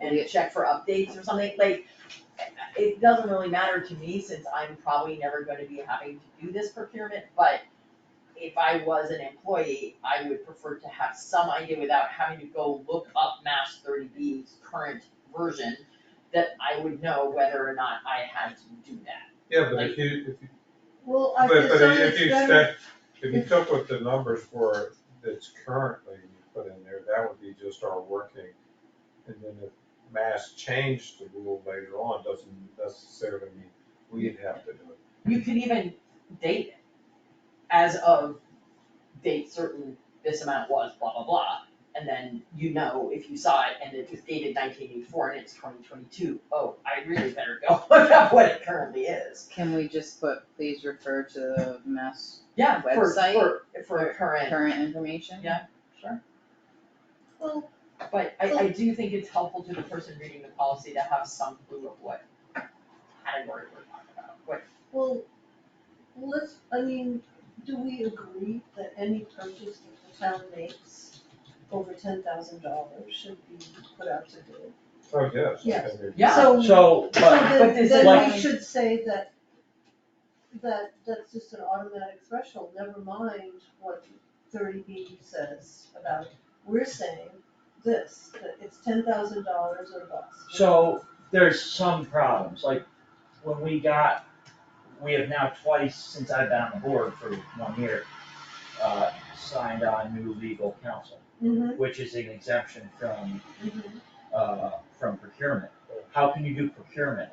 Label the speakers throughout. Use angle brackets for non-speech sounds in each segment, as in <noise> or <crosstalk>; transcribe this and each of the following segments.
Speaker 1: and check for updates or something, like, it doesn't really matter to me since I'm probably never gonna be having to do this procurement, but if I was an employee, I would prefer to have some idea without having to go look up Mass thirty B's current version, that I would know whether or not I had to do that.
Speaker 2: Yeah, but if you, if you,
Speaker 3: Well, I
Speaker 2: but,
Speaker 3: just
Speaker 2: but
Speaker 3: thought
Speaker 2: if
Speaker 3: it's
Speaker 2: you
Speaker 3: better,
Speaker 2: expect, if you took what the numbers were that's currently you put in there, that would be just our working. And then if Mass changed the rule later on, doesn't necessarily mean we'd have to do it.
Speaker 1: You could even date it as of date certain, this amount was blah, blah, blah. And then you know if you saw it and it was dated nineteen eighty-four and it's 2022. Oh, I really better go <laughs> look up what it currently is.
Speaker 4: Can we just put, please refer to the mass
Speaker 1: Yeah, for,
Speaker 4: Website?
Speaker 1: for, for current,
Speaker 4: current information?
Speaker 1: Yeah. sure.
Speaker 3: well,
Speaker 1: But I, I do think it's helpful to the person reading the policy to have some clue of what category we're talking about, what,
Speaker 3: well, let's, I mean, do we agree that any purchase that the town makes over ten thousand dollars should be put out to bid?
Speaker 2: Oh, yes. I
Speaker 3: Yes.
Speaker 2: think it-
Speaker 1: Yeah.
Speaker 3: So, so
Speaker 5: So, but,
Speaker 1: but
Speaker 3: then,
Speaker 1: this
Speaker 3: then
Speaker 5: like-
Speaker 3: we should say that, that, that's just an automatic threshold, never mind what thirty B says about it. We're saying this, that it's ten thousand dollars or bust.
Speaker 5: so there's some problems, like when we got, we have now twice since I've been on the board for one year, uh, signed on new legal counsel,
Speaker 3: Mhm,
Speaker 5: which is an exemption from,
Speaker 3: mhm.
Speaker 5: uh, from procurement. How can you do procurement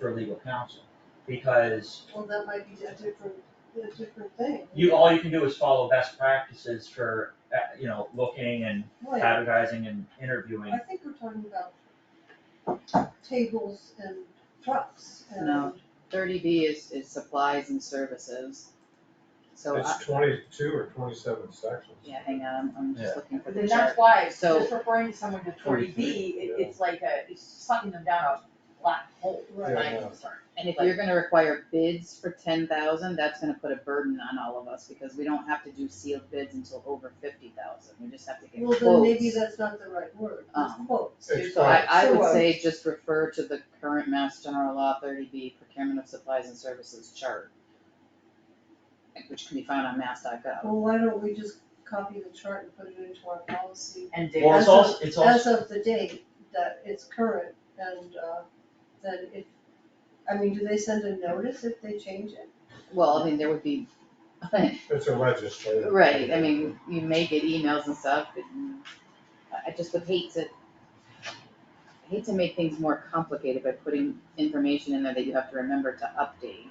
Speaker 5: for legal counsel? Because
Speaker 3: Well, that might be a different, a different thing.
Speaker 5: you, all you can do is follow best practices for, uh, you know, looking and
Speaker 3: Right,
Speaker 5: advertising and interviewing.
Speaker 3: I think we're talking about tables and trucks and.
Speaker 4: No. Thirty B is, is supplies and services. So, I-
Speaker 2: It's twenty-two or twenty-seven sections.
Speaker 4: yeah, hang on, I'm just
Speaker 5: Yeah.
Speaker 4: looking for
Speaker 1: But
Speaker 4: the
Speaker 1: then
Speaker 4: chart.
Speaker 1: that's why,
Speaker 4: So-
Speaker 1: just referring to someone to forty B, it,
Speaker 2: Yeah.
Speaker 1: it's like a, it's sucking them down a black hole,
Speaker 3: Right.
Speaker 1: I'm
Speaker 2: Yeah.
Speaker 1: concerned.
Speaker 4: And if you're gonna require bids for ten thousand, that's gonna put a burden on all of us, because we don't have to do sealed bids until over fifty thousand, we just have to get
Speaker 3: Well,
Speaker 4: quotes.
Speaker 3: then maybe that's not the right word, it's
Speaker 4: Um,
Speaker 3: quotes.
Speaker 2: It's
Speaker 4: So I,
Speaker 2: fine.
Speaker 4: I would
Speaker 1: So, uh,
Speaker 4: say just refer to the current Mass General Law thirty B procurement of supplies and services chart. Which can be found on mass.gov.
Speaker 3: Well, why don't we just copy the chart and put it into our policy?
Speaker 1: And
Speaker 5: Well,
Speaker 1: data,
Speaker 5: it's also, it's also.
Speaker 3: As of the date that it's current and, uh, then if, I mean, do they send a notice if they change it?
Speaker 4: Well, I mean, there would be, <laughs>
Speaker 2: It's a legislative.
Speaker 4: right, I mean, you may get emails and stuff, but I- I just would hate to. I Hate to make things more complicated by putting information in there that you have to remember to
Speaker 1: <laughs>
Speaker 4: update.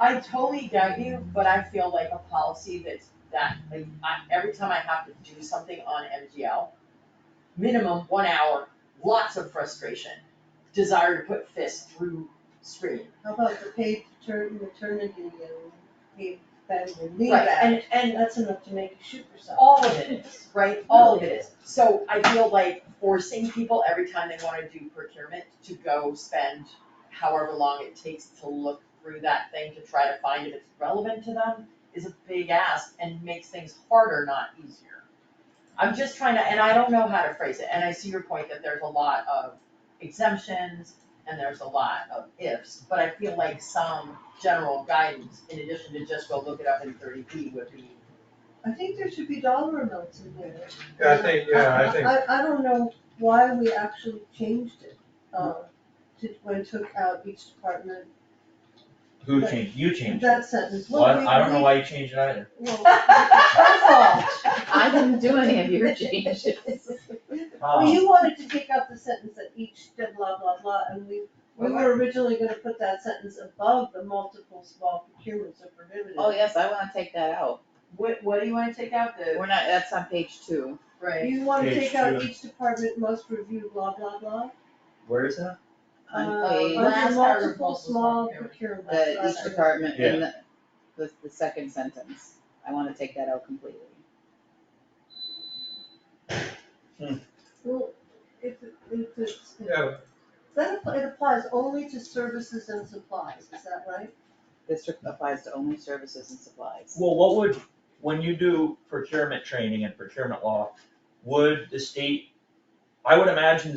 Speaker 1: I totally get you, but I feel like a policy that's that, like, I, every time I have to do something on MGL, minimum one hour, lots of frustration, desire to put fist through screen.
Speaker 3: How about the paid patern- maternity and paid family leave
Speaker 1: Right,
Speaker 3: act?
Speaker 1: and, and
Speaker 3: And that's enough to make you shoot yourself.
Speaker 1: All of it is, right, all of it is, so I feel like forcing people every time they wanna do procurement to go spend however long it takes to look through that thing to try to find if it's relevant to them is a big ask and makes things harder, not easier. I'm just trying to, and I don't know how to phrase it, and I see your point that there's a lot of exemptions and there's a lot of ifs, but I feel like some general guidance, in addition to just go look it up in thirty B would be
Speaker 3: I think there should be dollar amounts in there.
Speaker 2: Yeah, I think, yeah, I think,
Speaker 3: I, I don't know why we actually changed it, uh, to, when it took out each department,
Speaker 5: Who changed, you changed it.
Speaker 3: that sentence. Well,
Speaker 5: Well, I-
Speaker 3: we-
Speaker 5: I don't know
Speaker 3: we-
Speaker 5: why you changed it either.
Speaker 3: Well, our fault.
Speaker 4: I didn't do any of your changes.
Speaker 3: Well, you wanted to take out the sentence that each did blah, blah, blah, and we, we were originally gonna put that sentence above the multiple small procurements are prohibited.
Speaker 4: Oh, yes, I wanna take that out.
Speaker 1: What, what do you wanna take out the,
Speaker 4: We're not, that's on page two.
Speaker 1: right,
Speaker 3: You wanna
Speaker 5: Page
Speaker 3: take out
Speaker 5: two.
Speaker 3: each department must review blah, blah, blah?
Speaker 5: Where is that?
Speaker 4: On
Speaker 3: Uh,
Speaker 4: page-
Speaker 3: under
Speaker 1: Last paragraph,
Speaker 3: multiple
Speaker 1: multiple
Speaker 3: small
Speaker 1: procurement.
Speaker 3: procurements.
Speaker 4: The
Speaker 3: are
Speaker 4: each department
Speaker 5: Yeah.
Speaker 4: in the, the, the second sentence. I wanna take that out completely.
Speaker 3: Well, if, it- if it's,
Speaker 2: yeah,
Speaker 3: that, app- it applies only to services and supplies, is that right?
Speaker 4: This applies to only services and supplies.
Speaker 5: Well, what would, when you do procurement training and procurement law, would the state, I would imagine the